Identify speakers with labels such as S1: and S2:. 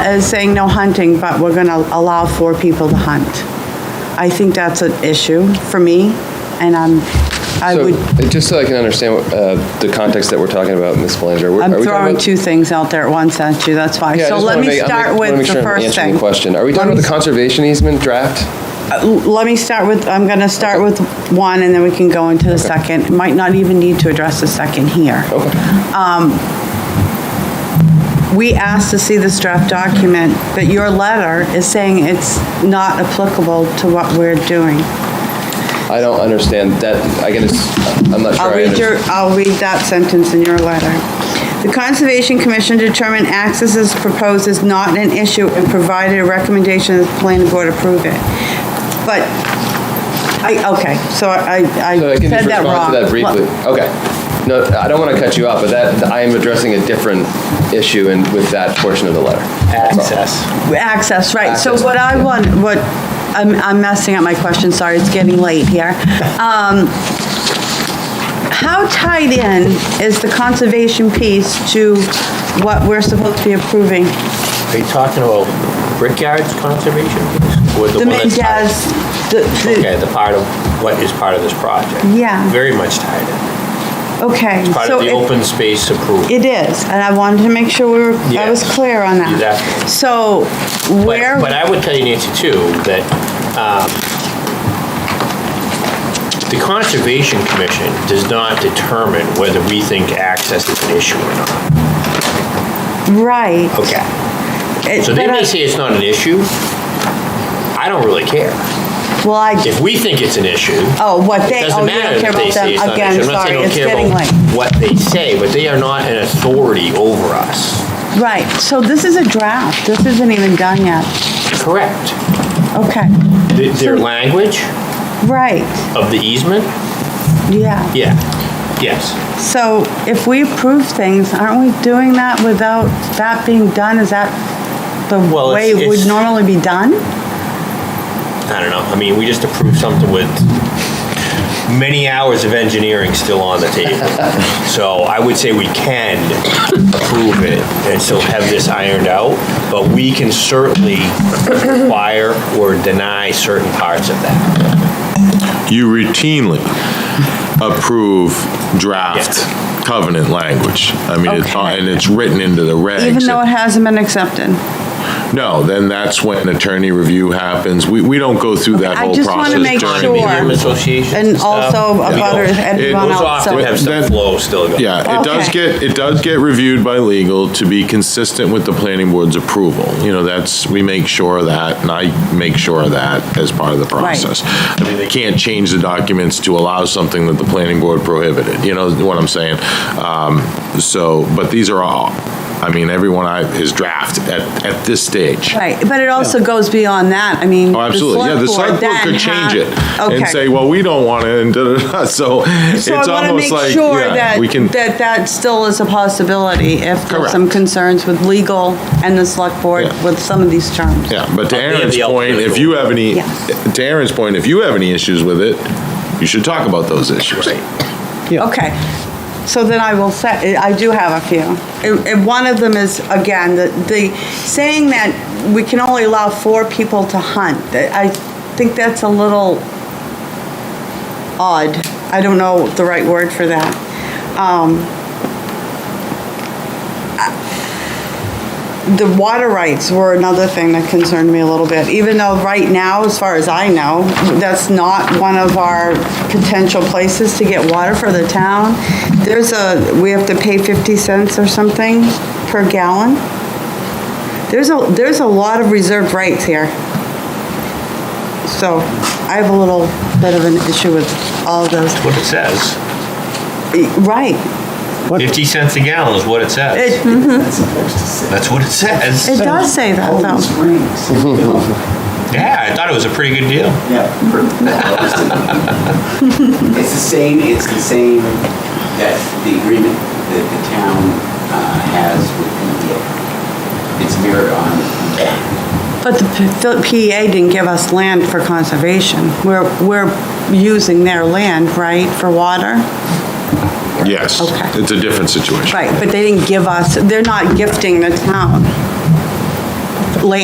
S1: as uh, saying no hunting, but we're going to allow four people to hunt. I think that's an issue for me, and I'm, I
S2: So,
S1: would,
S2: just so I can understand uh, the context that we're talking about, Ms. Belanger. we're- are
S1: I'm
S2: we talking
S1: throwing
S2: about-
S1: two things out there at once at you, that's why.
S2: Yeah, I
S1: So
S2: just
S1: let
S2: wanna
S1: me
S2: make- I'm make-
S1: start
S2: wanna
S1: with
S2: make sure
S1: the
S2: I'm
S1: first
S2: answering
S1: thing.
S2: the Question, are we talking about the conservation easement draft?
S1: Uh, Let me start with, I'm going to start with one, and then we can go into the second. Might not even need to address the second here. Um, we asked to see this draft document, but your letter is saying it's not applicable to what we're doing.
S2: I don't understand that, I guess, I'm not sure.
S1: I'll
S2: I
S1: read your,
S2: understand.
S1: I'll read that sentence in your letter. The Conservation Commission determined access as proposed is not an issue and provided a recommendation that the planning board approve it. But, I, okay, so I, I
S2: So I
S1: said
S2: can just
S1: that
S2: respond
S1: wrong.
S2: to that briefly. Okay. No, I don't want to cut you off, but that, I am addressing a different issue and with that portion of the letter.
S3: access.
S1: Access, right. So
S2: Access,
S1: what I
S2: yeah.
S1: want, what, I'm, I'm messing up my question, sorry, it's getting late here. Um, How tied in is the conservation piece to what we're supposed to be approving?
S3: Are you talking about Brickyard's conservation piece? Or
S1: The
S3: one that's tied-
S1: Mendez, the, the-
S3: Okay, the part of, what is part of this project?
S1: Yeah.
S3: Very much tied in.
S1: okay.
S3: Part
S1: so
S3: of the
S1: it-
S3: open space approval.
S1: It is, and I wanted to make sure we were, I was
S3: Yes.
S1: clear on that.
S3: Exactly.
S1: So
S3: But-
S1: where,
S3: But I would tell you, Nancy, too, that um, the Conservation Commission does not determine whether we think access is an issue or not.
S1: right.
S3: Okay.
S1: It-
S3: So they
S1: but I-
S3: may say it's not an issue. I don't really care.
S1: Well, I,
S3: If we think it's an issue,
S1: oh, what
S3: It
S1: they,
S3: doesn't
S1: oh, you
S3: matter
S1: don't care
S3: if they
S1: about
S3: say
S1: them.
S3: it's not
S1: Again,
S3: an issue. I'm not
S1: sorry,
S3: saying I
S1: it's
S3: don't care
S1: getting
S3: about
S1: late.
S3: What they say, but they are not an authority over us.
S1: Right, so this is a draft, this isn't even done yet.
S3: Correct.
S1: Okay,
S3: Th- Their
S1: So-
S3: language
S1: right,
S3: of the easement,
S1: yeah.
S3: yeah, yes.
S1: So if we approve things, aren't we doing that without that being done? Is that the
S3: Well,
S1: way
S3: it's-
S1: it would
S3: it's-
S1: normally be done?
S3: I don't know, I mean, we just approved something with many hours of engineering still on the table. So I would say we can approve it and still have this ironed out, but we can certainly require or deny certain parts of that.
S4: You routinely approve draft covenant language. I mean, it's
S1: Okay.
S4: and it's written into the regs.
S1: Even though it hasn't been accepted?
S4: No, then that's when attorney review happens. We, we don't go through that
S1: I
S4: whole
S1: just wanna
S4: process
S1: make
S4: during
S1: sure.
S4: the
S3: Homeowner associations
S1: And
S3: stuff,
S1: also
S3: we
S1: about
S3: don't-
S1: everyone
S3: Those
S1: else.
S3: often have some
S4: That-
S3: flow still going.
S4: Yeah, it does
S1: Okay.
S4: get, it does get reviewed by legal to be consistent with the planning board's approval. You know, that's, we make sure of that, and I make sure of that as part of the process. I mean, they can't change the documents to allow something that the planning board prohibited, you know what I'm saying? Um, So, but these are all, I mean, everyone I, is draft at, at this stage.
S1: Right, but it also goes beyond that, I mean.
S4: Oh, absolutely, yeah, the select board
S1: then
S4: could change
S1: ha-
S4: it and
S1: Okay.
S4: say, well, we don't want it, and da-da-da, so it's
S1: So I want to
S4: almost
S1: make
S4: like,
S1: sure
S4: yeah,
S1: that,
S4: we can.
S1: that that still is a possibility if there's
S4: Correct.
S1: some concerns with legal and the select board
S4: Yeah.
S1: with some of these terms.
S4: Yeah, but to
S3: But they have
S4: Aaron's
S3: the
S4: point,
S3: ultimate
S4: if you have any,
S1: Yes.
S4: to Aaron's point, if you have any issues with it, you should talk about those issues.
S1: Okay, so then I will say, I do have a few. And- And one of them is, again, the, the saying that we can only allow four people to hunt. That- I think that's a little odd. I don't know the right word for that. Um, I- The water rights were another thing that concerned me a little bit, even though right now, as far as I know, that's not one of our potential places to get water for the town. There's a, we have to pay 50 cents or something per gallon. There's a, there's a lot of reserved rights here. So I have a little bit of an issue with all those.
S3: What it says.
S1: Right.
S3: 50 cents a gallon is what it says.
S1: It,
S3: That's what it
S1: it
S3: says.
S1: does say that
S5: oh,
S1: though.
S3: Yeah, I thought it was a pretty good deal.
S5: Yeah. It's the same, it's the same that the agreement that the town uh, has with PDA. It's mirrored on that.
S1: But the P- the PEA didn't give us land for conservation. We're, we're using their land, right, for water?
S4: Yes,
S1: Okay.
S4: it's a different situation.
S1: Right, but they didn't give us, they're not gifting the town. land